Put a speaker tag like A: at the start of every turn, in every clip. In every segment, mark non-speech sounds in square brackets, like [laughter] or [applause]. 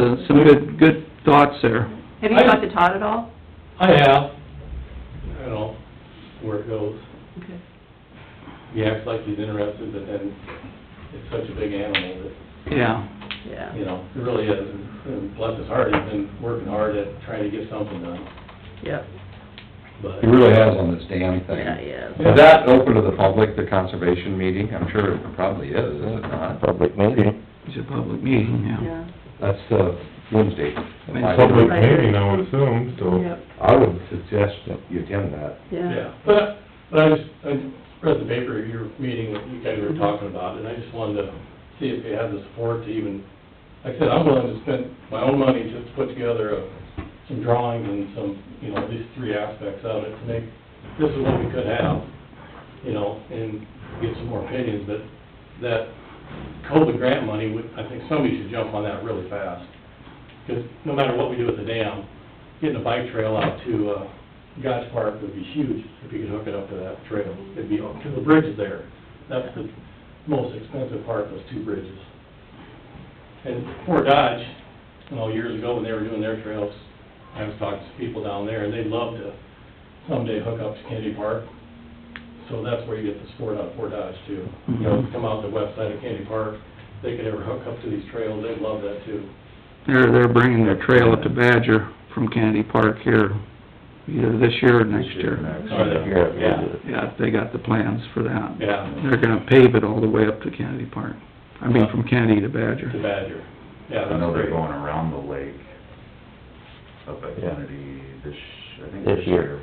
A: uh, some good, good thoughts there.
B: Have you talked to Todd at all?
C: I have, I don't know where it goes.
B: Okay.
C: He acts like he's interested, but then it's such a big animal
A: Yeah.
B: Yeah.
C: that, you know, it really is. And bless his heart, he's been working hard at trying to get something done,
B: Yep.
C: but...
D: He really has on this damn
B: Yeah,
D: thing.
B: yeah.
D: Is that open to the public, the conservation meeting? I'm sure it probably is, is it not?
E: Public meeting.
A: It's a public meeting, yeah.
B: Yeah.
D: That's, uh, Wednesday.
A: Wednesday.
F: Public
B: Right.
F: meeting, I would assume, so.
B: Yep,
D: I would suggest that you attend that.
B: yeah.
C: Yeah, but, but I just, I read the paper, of your meeting, that you guys were talking about, and I just wanted to see if you had the support to even, like I said, I'm willing to spend my own money just to put together a- some drawings and some, you know, these three aspects of it, to make, this is what we could have, you know, and get some more opinions, but that COVID grant money, would- I think somebody should jump on that really fast. Because no matter what we do with the dam, getting a bike trail out to, uh, Gosh Park would be huge if you could hook it up to that trail. It'd be, because the bridge is there. That's the most expensive part, those two bridges. And Fort Dodge, you know, years ago when they were doing their trails, I was talking to people down there, and they'd love to someday hook up to Kennedy Park. So that's where you get the sport out of Fort Dodge too. You know, come out the west side of Kennedy Park, they could ever hook up to these trails, they'd love that too.
A: They're, they're bringing their trail up to Badger from Kennedy Park here, either this year or next year. Yeah, they got the plans for that.
C: Yeah,
A: They're gonna pave it all the way up to Kennedy Park. I mean, from Kennedy to Badger.
C: to Badger. Yeah,
G: I
C: that's
G: know they're
C: great.
G: going around the lake up at
E: Yeah.
G: Kennedy this, I think
E: This
G: this
E: year.
G: year.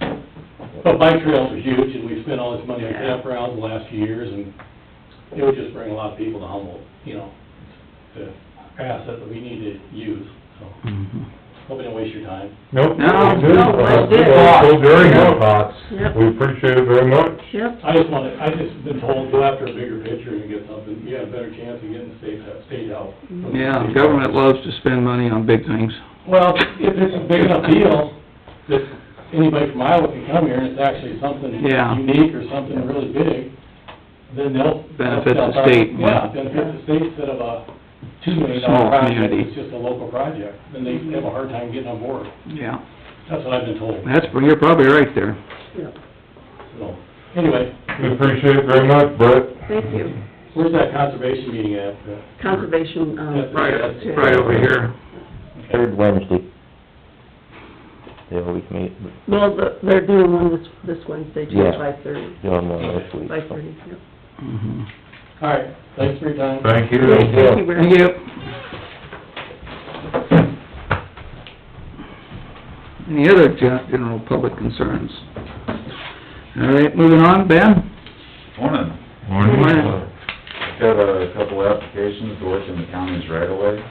C: But bike trails are huge, and we spent all this money on
B: Yeah.
C: campgrounds the last few years, and it would just bring a lot of people to Humboldt, you know, the asset that we need to use, so,
A: Mhm.
C: hope I don't waste your time.
F: Nope.
A: No,
F: we did.
B: no, let's do it.
F: So very good thoughts.
B: Yep.
F: We appreciate it very much.
B: Yep,
C: I just wanted, I just been told, go after a bigger picture and get something, you have a better chance of getting state, state help. from the
A: Yeah,
C: state.
A: government loves to spend money on big things.
C: Well, [laughs] if it's a big enough deal, that anybody from Iowa can come here, and it's actually something
A: Yeah.
C: unique or something really big, then they'll...
A: Benefit the
C: they'll-
A: state, yeah.
C: Yeah, benefit the state instead of a two million
A: Small
C: dollar project,
A: community.
C: it's just a local project, then they have a hard time getting on board.
A: Yeah,
C: That's what I've been told,
A: that's, you're probably right there.
B: yep.
C: so, anyway,
F: We appreciate it very much, Brett.
B: Thank you.
C: where's that conservation meeting at?
B: Conservation, um,
C: Right,
B: yeah.
A: Right over here.
E: Third Wednesday. They always meet,
B: Well, the- they're doing one this, this Wednesday, too,
E: Yeah.
B: five thirty.
E: doing one this week.
B: Five thirty, yep.
A: Mhm.
C: All right, thanks for your time.
F: Thank you.
B: Thank you, Rick.
A: Thank you. Any other gen- general public concerns? All right, moving on, Ben?
G: Morning.
F: Morning.
A: Morning.
G: Got a couple of applications to work in the counties right away.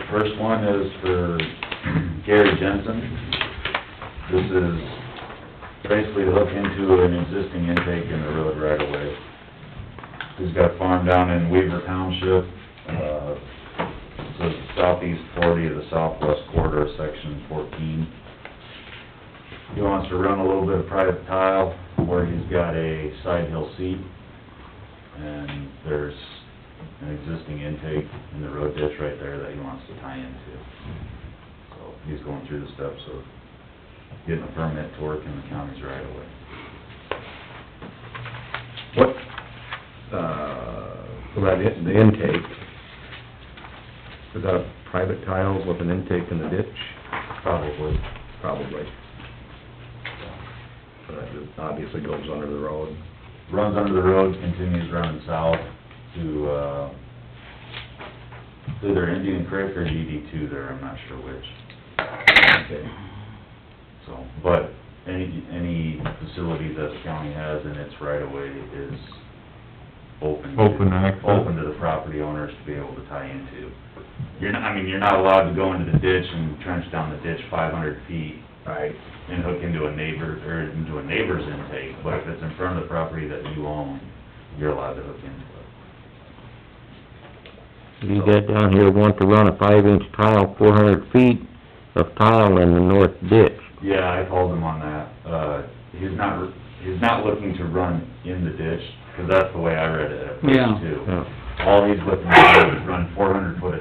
G: The first one is for [clears throat] Gary Jensen. This is basically to hook into an existing intake in the road right away. He's got a farm down in Weaver Township, uh, it's the southeast forty of the southwest quarter, of section fourteen. He wants to run a little bit of private tile where he's got a side hill seat and there's an existing intake in the road ditch right there that he wants to tie into. So he's going through the steps of getting a permit to work in the counties right away.
D: What, uh, about it- the intake? Is that a private tiles with an intake in the ditch?
G: Probably.
D: Probably. But it obviously goes under the road.
G: Runs under the road, continues running south to, uh, either Indian Creek or DD two there, I'm not sure which.
D: Okay.
G: So, but any, any facility that the county has in its right of way is open. to-
F: Open access.
G: Open to the property owners to be able to tie into. You're not, I mean, you're not allowed to go into the ditch and trench down the ditch five hundred feet
D: Right.
G: and hook into a neighbor, or into a neighbor's intake, but if it's in front of the property that you own, you're allowed to hook into it.
E: You got down here, want to run a five-inch tile, four hundred feet of tile in the north ditch.
G: Yeah, I called him on that. Uh, he's not, he's not looking to run in the ditch, 'cause that's the way I read it at
A: Yeah.
G: first too.
E: Yeah.
G: All he's looking to do is run four hundred foot of